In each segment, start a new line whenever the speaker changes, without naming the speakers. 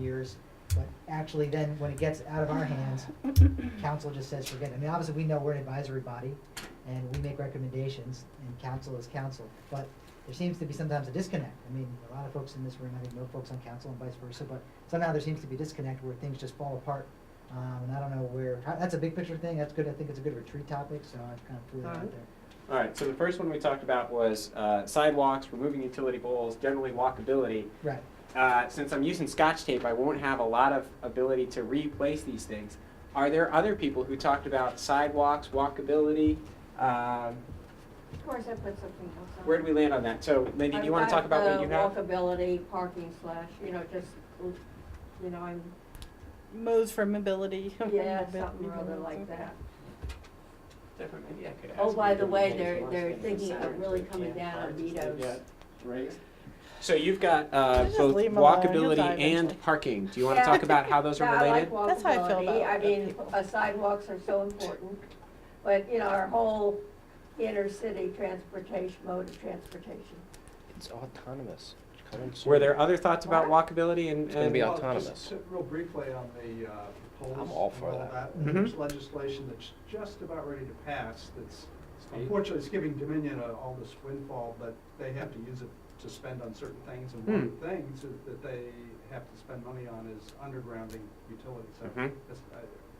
years, but actually then when it gets out of our hands, council just says forget it. I mean, obviously, we know we're an advisory body and we make recommendations and council is council, but there seems to be sometimes a disconnect. I mean, a lot of folks in this room, I think, know folks on council and vice versa, but somehow there seems to be a disconnect where things just fall apart. Um, and I don't know where, how- that's a big picture thing. That's good. I think it's a good retreat topic, so I kind of threw that out
Alright.
there.
All right, so the first one we talked about was uh, sidewalks, removing utility poles, generally walkability.
Right.
Uh, Since I'm using scotch tape, I won't have a lot of ability to replace these things. Are there other people who talked about sidewalks, walkability? Um,
Or is I put something else on?
Where do we land on that? So Lindy, do you want to talk about what you have?
I've got the walkability, parking slash, you know, just, you know, I'm,
Mo's for mobility.
yeah, something or other like that.
Maybe I could
Oh,
ask
by
you
the
to
way,
raise
they're-
your
they're
last name
thinking of
Saturn,
really
so we
coming
can't
down on
hard just
Vito's.
get raised. So you've got uh,
Just
both
leave 'em alone, you'll die
walkability
eventually.
and parking. Do you want to
Yeah.
talk about how those are
Yeah, I like
related?
That's how I feel
walkability.
about
I
it,
mean,
people.
uh, sidewalks are so important, but, you know, our whole inner city transportation, mode of transportation.
It's autonomous. It's coming soon.
Were there other thoughts about walkability and?
gonna be
and-
out-
Well, uh, just
autonomous.
to- Real briefly on the uh, polls.
I'm all for
and all
that.
Mhm.
There's legislation that's just about ready to pass that's unfortunately it's giving Dominion uh, all this windfall, but they have to use it to spend on certain things. And one
Hmm.
of the things that- that they have to spend money on is undergrounding utilities. So
Mm-hmm.
Mhm.
it's, uh,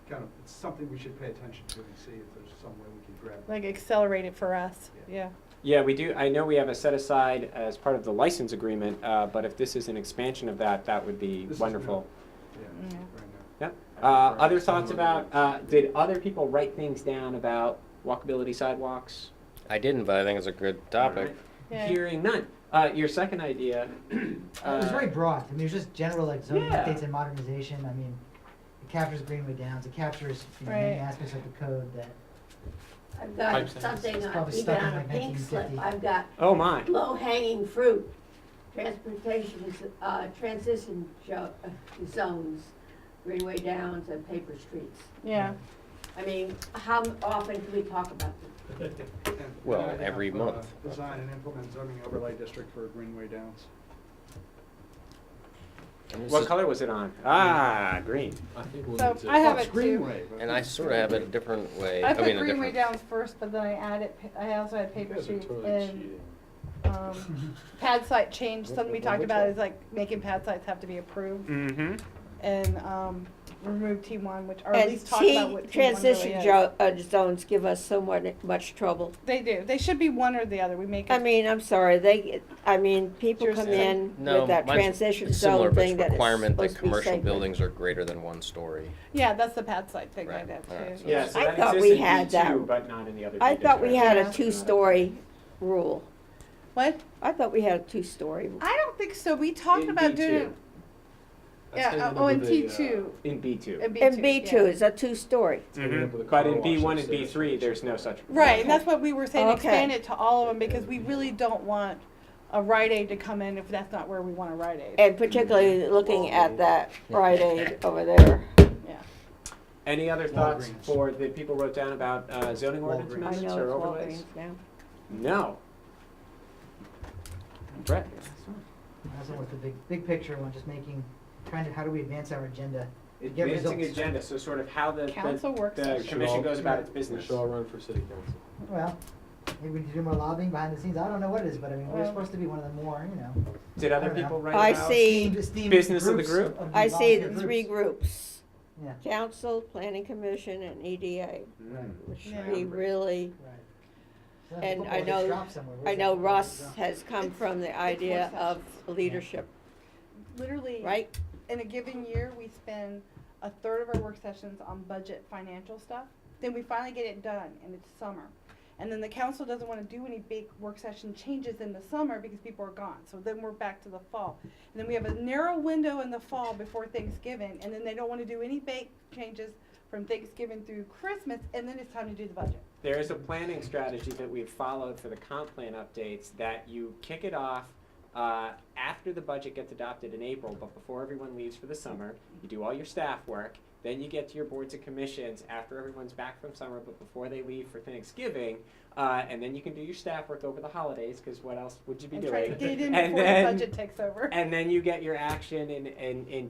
Kind of, it's something we should pay attention to and see if there's some way we can grab.
Like accelerate it for us, yeah.
Yeah, we do, I know we have a set aside as part of the license agreement, uh, but if this is an expansion of that, that would be
This is
wonderful.
Yeah,
Yeah.
right now.
Yep.
I
Uh,
prefer
other
it
thoughts
somewhere
about, uh, did other people write things down about walkability sidewalks?
I didn't, but I think it's a good topic.
Yeah.
Hearing none. Uh, your second idea.
It was
uh,
very broad. I mean, it was just general like zoning
Yeah.
updates and modernization. I mean, it captures Greenway Downs. It captures you know, many
Right.
aspects of the code that
Pipe
I've got
sentence.
something
It's
on,
probably
even
stuck in
on a
like
pink slip,
1950.
I've got
Oh, my.
low hanging fruit, transportation, uh, transition jo- uh, zones, Greenway Downs and paper streets.
Yeah,
I mean, how often do we talk about them?
And- and
Well,
I
every
have, uh,
month.
Design and implement zoning overlay district for Greenway Downs.
And this
What
is-
color was it on? Ah, green.
I think we'll
so
need to.
I have it
That's
too.
Greenway, but-
And I sort of have it a different way.
I
I
put
mean, a
Greenway
different.
Downs first, but then I added, pa- I also had
You
paper
guys are
streets
totally
and,
cheating.
um, pad site change, something we
Wh- wh-
talked
which
about
one?
is like making pad sites have to be approved
Mm-hmm.
and, um, remove T one, which, or at
And
least talk about
T,
what T one really
transition
is.
jo- uh, zones give us so mu- much trouble.
They do, they should be one or the other, we make
I
it,
mean, I'm sorry, they, I mean, people
Yours
come
is-
in
No,
with that
mine's
transition
similar,
zone
but it's
thing that is
requirement that
supposed to be
commercial
sacred.
buildings are greater than one story.
yeah, that's the pad site thing I
Right,
did
all right,
too.
so-
Yeah, so
I
that
thought
exists
we
in
had
B2,
that.
but not in the other two
I thought we had
Yeah.
a two-story rule.
What?
I thought we had a two-story. rule.
I don't think so, we talked
In
about
B2.
doing it,
That's taken
yeah,
up
oh,
with
and
the,
T
uh,
two,
In B two.
and B two,
And B two
yeah.
is a two-story.
taken up with
Mm-hmm.
the
mm-hmm. But
car
in B one
wash
and B
upstairs.
three, there's no such.
Right, and that's what we were saying,
Okay.
expand it to all of them, because we really don't want a Rite Aid to come in if that's not where we want a Rite Aid.
And particularly looking at that Rite Aid over there.
Any other thoughts
Walgreens.
for the people wrote down about uh, zoning ordinance
Walgreens.
I
amendments or
know it's
overlays?
Walgreens now.
No. Brett.
I also want the big, big picture one, just making, trying to, how do we advance our agenda? Get
Advancing
results.
agenda, so sort of how the,
Council
the,
work
the
session.
commission goes about its
We
business.
should all run for city council.
Well, maybe we need to do more lobbying behind the scenes. I don't know what it is, but I mean, we're
Well-
supposed to be one of the more, you know,
Did
I
other
don't know.
people write
I
about?
see.
esteemed, esteemed
Business of the
groups
group.
of
I see
volunteer
the three
groups.
groups,
Yeah,
council, planning commission, and EDA,
Mm.
which
Yeah.
we really
right. So if
And
football
I
gets
know-
dropped somewhere, where's
I
that
know
football
Russ
gets "Oh, dropped?
has come from the idea of leadership,
Literally,
right?
in a given year, we spend a third of our work sessions on budget financial stuff, then we finally get it done, and it's summer. And then the council doesn't wanna do any big work session changes in the summer because people are gone, so then we're back to the fall. And then we have a narrow window in the fall before Thanksgiving, and then they don't wanna do any big changes from Thanksgiving through Christmas, and then it's time to do the budget.
There is a planning strategy that we've followed for the comp plan updates that you kick it off uh, after the budget gets adopted in April, but before everyone leaves for the summer. You do all your staff work, then you get to your boards and commissions after everyone's back from summer, but before they leave for Thanksgiving. Uh, and then you can do your staff work over the holidays, because what else would you be
And
doing?
try to get it in
And
before the
then-
budget takes over.
And then you get your action in, in, in